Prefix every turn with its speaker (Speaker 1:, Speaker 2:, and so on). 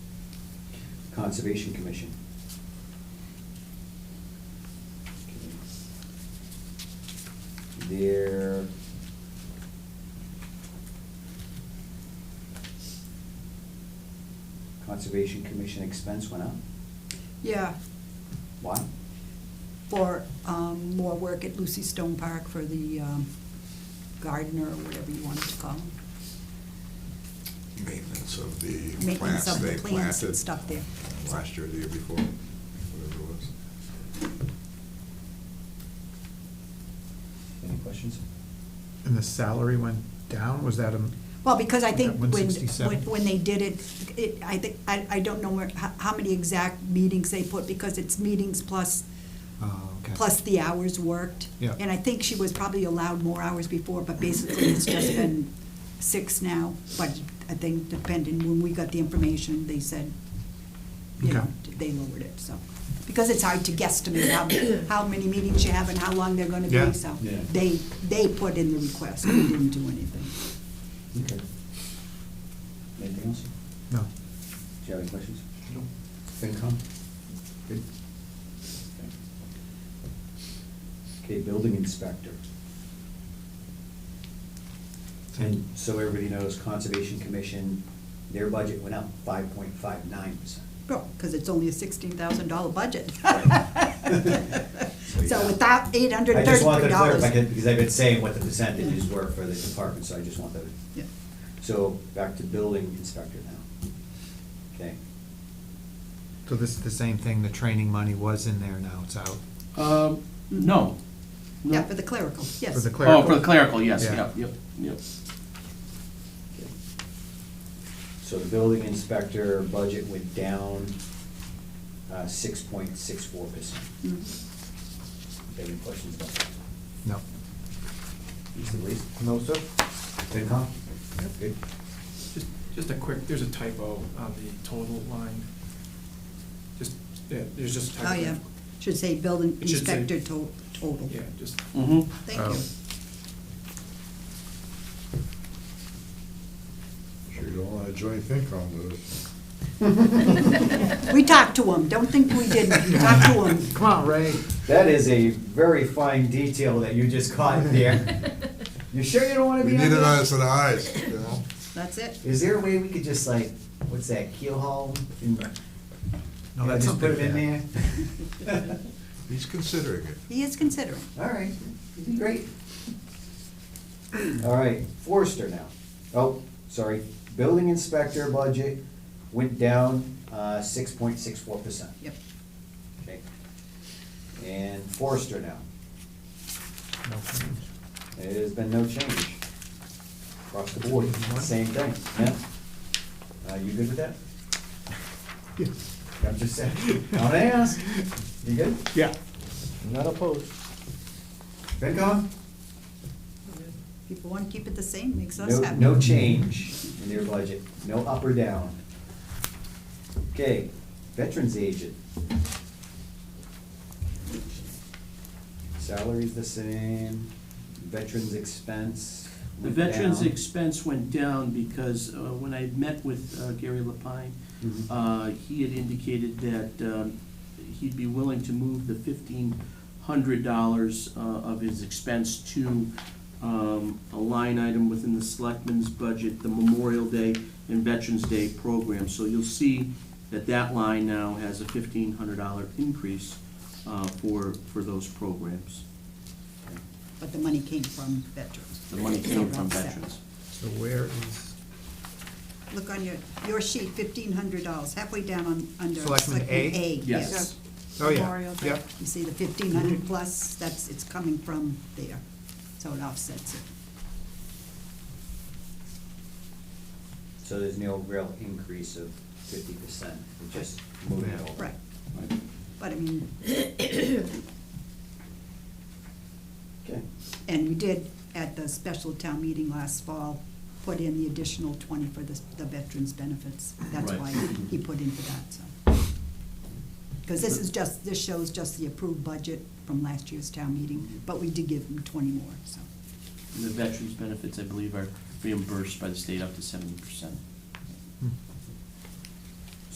Speaker 1: Conservation Commission. There. Conservation Commission expense went up,
Speaker 2: Yeah,
Speaker 1: why?
Speaker 2: for um, more work at Lucy Stone Park for the um, gardener, or whatever you wanted to call him.
Speaker 3: Maintenance of the
Speaker 2: Maintenance
Speaker 3: plants
Speaker 2: of
Speaker 3: they
Speaker 2: the plants and
Speaker 3: planted
Speaker 2: stuff there.
Speaker 3: last year, the year before, whatever it was.
Speaker 1: Any questions?
Speaker 4: And the salary went down, was that a?
Speaker 2: Well, because I think
Speaker 4: At
Speaker 2: when,
Speaker 4: 167.
Speaker 2: when- when they did it, it, I think, I, I don't know where, how, how many exact meetings they put, because it's meetings plus,
Speaker 4: Oh, okay.
Speaker 2: plus the hours worked.
Speaker 4: Yeah.
Speaker 2: And I think she was probably allowed more hours before, but basically it's just been six now. But I think depending, when we got the information, they said, you know, they lowered it, so. Because it's hard to guesstimate how, how many meetings you have and how long they're gonna
Speaker 4: Yeah.
Speaker 2: be, so.
Speaker 1: Yeah.
Speaker 2: They, they put in the request, we didn't do anything.
Speaker 1: Okay. Anything else?
Speaker 4: No.
Speaker 1: Do you have any questions?
Speaker 4: No.
Speaker 1: FinCom? Good. Okay, building inspector. And so everybody knows Conservation Commission, their budget went up five point five nine percent.
Speaker 2: Well, because it's only a sixteen thousand dollar budget.
Speaker 1: Right.
Speaker 2: So without eight hundred
Speaker 1: I
Speaker 2: and
Speaker 1: just wanted to clarify,
Speaker 2: thirty-three dollars.
Speaker 1: that because I've been saying what the percentages were for the department, so I just wanted to So back to building inspector now. Okay.
Speaker 4: So this is the same thing, the training money was in there, now it's out?
Speaker 5: Um, no. No.
Speaker 2: Yeah, for the clerical, yes.
Speaker 4: For the clerical?
Speaker 5: Oh, for the clerical, yes,
Speaker 4: Yeah.
Speaker 5: yep, yep, yep.
Speaker 1: So the building inspector budget went down uh, six point six four percent.
Speaker 2: Mhm.
Speaker 1: Any questions about that?
Speaker 4: No.
Speaker 1: Mr. Lees?
Speaker 4: No, sir?
Speaker 1: FinCom? Good.
Speaker 6: Just, just a quick, there's a typo on the total line. Just, yeah, there's just a
Speaker 2: Oh,
Speaker 6: typo.
Speaker 2: yeah, should say building
Speaker 6: It should say-
Speaker 2: inspector to- total.
Speaker 6: Yeah, just,
Speaker 5: Mm-hmm.
Speaker 2: Thank
Speaker 4: Oh.
Speaker 2: you.
Speaker 3: Sure you don't wanna join FinCom with us.
Speaker 2: We talked to him, don't think we didn't, We talked to him.
Speaker 4: Come on, Ray.
Speaker 1: That is a very fine detail that you just caught there. You sure you don't wanna
Speaker 3: We
Speaker 1: be on
Speaker 3: need it on
Speaker 1: this?
Speaker 3: us in the eyes, you know?
Speaker 2: That's it.
Speaker 1: Is there a way we could just like, what's that, keelhaul? and-
Speaker 4: No,
Speaker 1: and
Speaker 4: that's
Speaker 1: Just put
Speaker 4: something
Speaker 1: it in there?
Speaker 3: He's considering it.
Speaker 2: He is considering.
Speaker 1: All right, you did great. All right, Forrester now. Oh, sorry, building inspector budget went down uh, six point six four percent.
Speaker 2: Yep.
Speaker 1: Okay. And Forrester now,
Speaker 4: No change.
Speaker 1: it has been no change across the board, same thing, yeah? Uh, You good with that? I'm just saying, I'm gonna ask, you good?
Speaker 4: Yeah.
Speaker 7: Not opposed.
Speaker 1: FinCom?
Speaker 2: People want to keep it the same, makes us
Speaker 1: No,
Speaker 2: happy.
Speaker 1: no change in their budget, no up or down. Okay, veterans agent. Salary's the same, veterans expense
Speaker 5: The
Speaker 1: went
Speaker 5: veterans'
Speaker 1: down.
Speaker 5: expense went down because uh, when I met with uh, Gary Lapine,
Speaker 1: Mhm.
Speaker 5: uh, he had indicated that um, he'd be willing to move the fifteen hundred dollars uh, of his expense to um, a line item within the selectmen's budget, the Memorial Day and Veterans Day program. So you'll see that that line now has a fifteen hundred dollar increase uh, for, for those programs.
Speaker 2: But the money came from veterans.
Speaker 5: The money
Speaker 2: They
Speaker 5: came
Speaker 2: were
Speaker 5: from
Speaker 2: upset.
Speaker 5: veterans.
Speaker 4: So where is
Speaker 2: Look on your, your sheet, fifteen hundred dollars, halfway down on, under.
Speaker 4: Selectmen A?
Speaker 5: Yes.
Speaker 4: Oh, yeah.
Speaker 7: Memorial Day.
Speaker 4: Yep.
Speaker 2: You see the fifteen hundred plus, that's, it's coming from there, so it offsets it.
Speaker 1: So there's no real increase of fifty percent, we're just moving it over.
Speaker 2: Right,
Speaker 1: Right.
Speaker 2: but I mean,
Speaker 1: Okay,
Speaker 2: and we did, at the special town meeting last fall, put in the additional twenty for the, the veterans' benefits. That's
Speaker 5: Right.
Speaker 2: why he put in for that, so. Because this is just, this shows just the approved budget from last year's town meeting, but we did give him twenty more, so.
Speaker 5: And The veterans' benefits, I believe, are reimbursed by the state up to seventy percent.
Speaker 4: Hmm.